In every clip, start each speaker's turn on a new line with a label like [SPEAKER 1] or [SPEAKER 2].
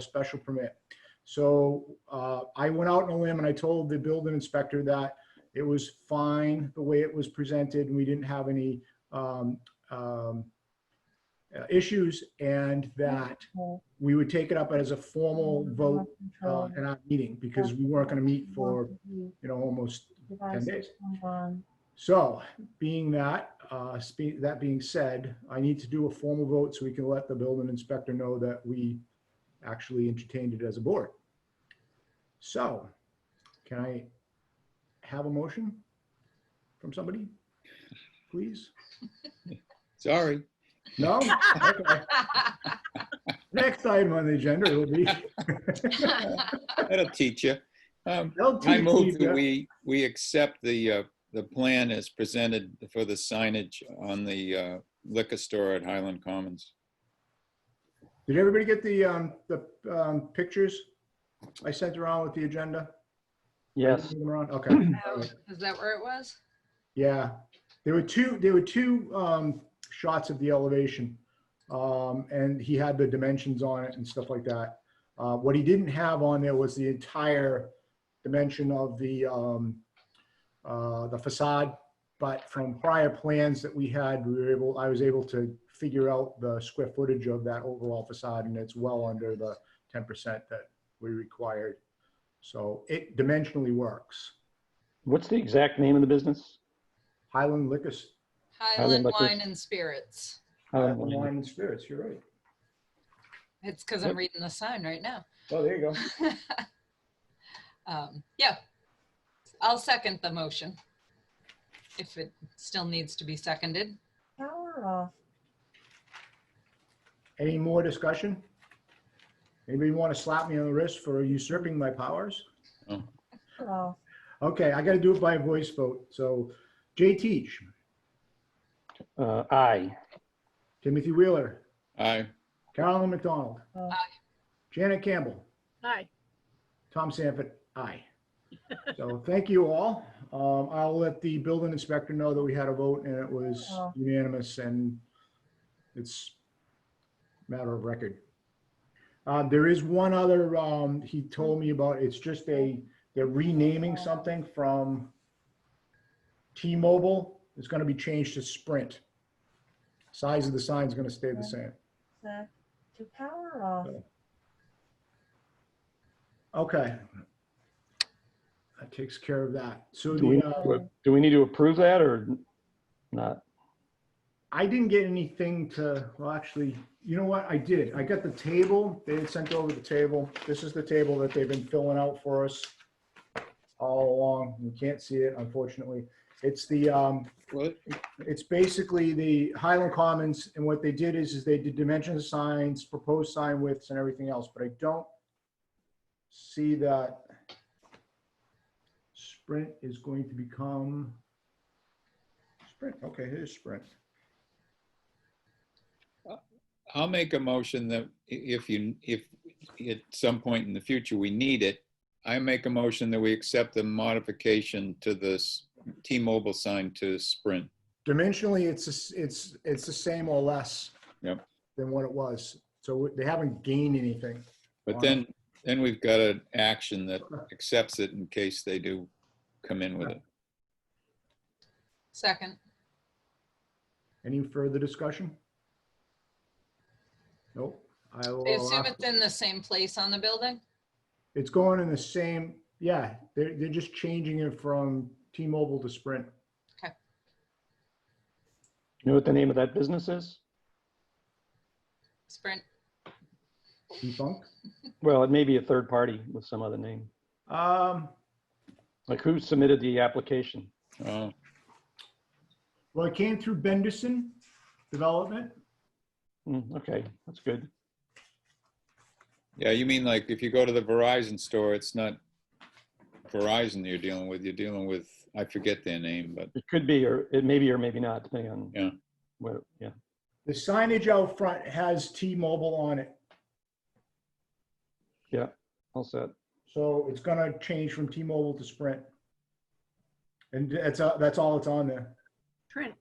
[SPEAKER 1] special permit. So uh, I went out on a limb and I told the building inspector that it was fine the way it was presented and we didn't have any um, um, uh, issues and that we would take it up as a formal
[SPEAKER 2] Mm,
[SPEAKER 1] vote uh, in our meeting because we weren't going to meet for, you know, almost 10 days. So being that, uh, spe- that being said, I need to do a formal vote so we can let the building inspector know that we actually entertained it as a board. So can I have a motion from somebody? Please?
[SPEAKER 3] Sorry.
[SPEAKER 1] No? Okay. Next item on the agenda will be.
[SPEAKER 3] That'll teach you. Um, I
[SPEAKER 1] LTP,
[SPEAKER 3] move that we, we accept the, uh, the plan as presented for the signage on the uh, liquor store at Highland Commons.
[SPEAKER 1] Did everybody get the, um, the, um, pictures I sent around with the agenda?
[SPEAKER 4] Yes,
[SPEAKER 1] Okay.
[SPEAKER 5] Oh, Is that where it was?
[SPEAKER 1] Yeah, there were two, there were two um, shots of the elevation. Um, and he had the dimensions on it and stuff like that. Uh, what he didn't have on there was the entire dimension of the, um, uh, the facade. But from prior plans that we had, we were able, I was able to figure out the square footage of that overall facade and it's well under the 10% that we required. So it dimensionally works.
[SPEAKER 4] what's the exact name of the business?
[SPEAKER 1] Highland Liquor Store
[SPEAKER 5] Highland
[SPEAKER 4] Liquors.
[SPEAKER 5] Wine and Spirits.
[SPEAKER 4] Uh,
[SPEAKER 1] Apple wine and spirits, you're right.
[SPEAKER 5] It's because I'm reading the sign right now.
[SPEAKER 1] Oh, there you go.
[SPEAKER 5] Um, Yeah. I'll second the motion. If it still needs to be seconded.
[SPEAKER 2] Power off.
[SPEAKER 1] Any more discussion? Anybody want to slap me on the wrist for usurping my powers?
[SPEAKER 2] Power off.
[SPEAKER 1] Okay, I got to do it by voice vote. So Jay Teach,
[SPEAKER 4] uh, Aye.
[SPEAKER 1] Timothy Wheeler,
[SPEAKER 3] Aye.
[SPEAKER 1] Carolyn McDonald.
[SPEAKER 2] Aye.
[SPEAKER 1] Janet Campbell.
[SPEAKER 6] Aye.
[SPEAKER 1] Tom Sanford, aye. So thank you all. Um, I'll let the building inspector know that we had a vote and it was
[SPEAKER 2] Oh.
[SPEAKER 1] unanimous and it's a matter of record. Uh, there is one other, um, he told me about, it's just a, they're renaming something from T-Mobile. It's gonna be changed to Sprint. Size of the sign's gonna stay the same.
[SPEAKER 2] Zach, To power off.
[SPEAKER 1] Okay. That takes care of that. So
[SPEAKER 4] Do we,
[SPEAKER 1] the,
[SPEAKER 4] need
[SPEAKER 1] uh,
[SPEAKER 4] to- do we need to approve that or not?
[SPEAKER 1] I didn't get anything to, well, actually, you know what? I did. I got the table. They had sent over the table. This is the table that they've been filling out for us all along. You can't see it, unfortunately. It's the, um,
[SPEAKER 3] Well,
[SPEAKER 1] it's basically the Highland Commons, and what they did is, is they did dimensions of signs, proposed sign widths and everything else, but I don't see that Sprint is going to become Sprint, okay, here's Sprint.
[SPEAKER 3] I'll make a motion that i- if you, if at some point in the future we need it, I make a motion that we accept the modification to this T-Mobile sign to Sprint.
[SPEAKER 1] Dimensionally, it's, the s- it's, it's the same or less
[SPEAKER 3] Yep.
[SPEAKER 1] than what it was, so they haven't gained anything.
[SPEAKER 3] But then, then we've got an action that accepts it in case they do come in with it.
[SPEAKER 5] Second.
[SPEAKER 1] Any further discussion? Nope. I will.
[SPEAKER 5] I assume
[SPEAKER 1] uh,
[SPEAKER 5] it's in the same place on the building?
[SPEAKER 1] It's going in the same, yeah, they're, they're just changing it from T-Mobile to Sprint.
[SPEAKER 4] You know what the name of that business is?
[SPEAKER 5] Sprint.
[SPEAKER 1] T-Funk.
[SPEAKER 4] Well, it may be a third party with some other name.
[SPEAKER 1] Um,
[SPEAKER 4] Like who submitted the application?
[SPEAKER 3] Oh,
[SPEAKER 1] well, it came through Benderson Development.
[SPEAKER 4] Hmm, Okay, that's good.
[SPEAKER 3] yeah, you mean like if you go to the Verizon store, it's not Verizon you're dealing with, you're dealing with, I forget their name, but
[SPEAKER 4] It could be, or it may be, or maybe not, depending on.
[SPEAKER 3] Yeah.
[SPEAKER 4] What, yeah.
[SPEAKER 1] The signage out front has T-Mobile on it,
[SPEAKER 4] All set.
[SPEAKER 1] so it's gonna change from T-Mobile to Sprint. And that's, uh, that's all it's on there.
[SPEAKER 6] Trent,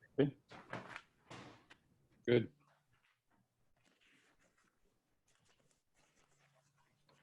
[SPEAKER 3] good.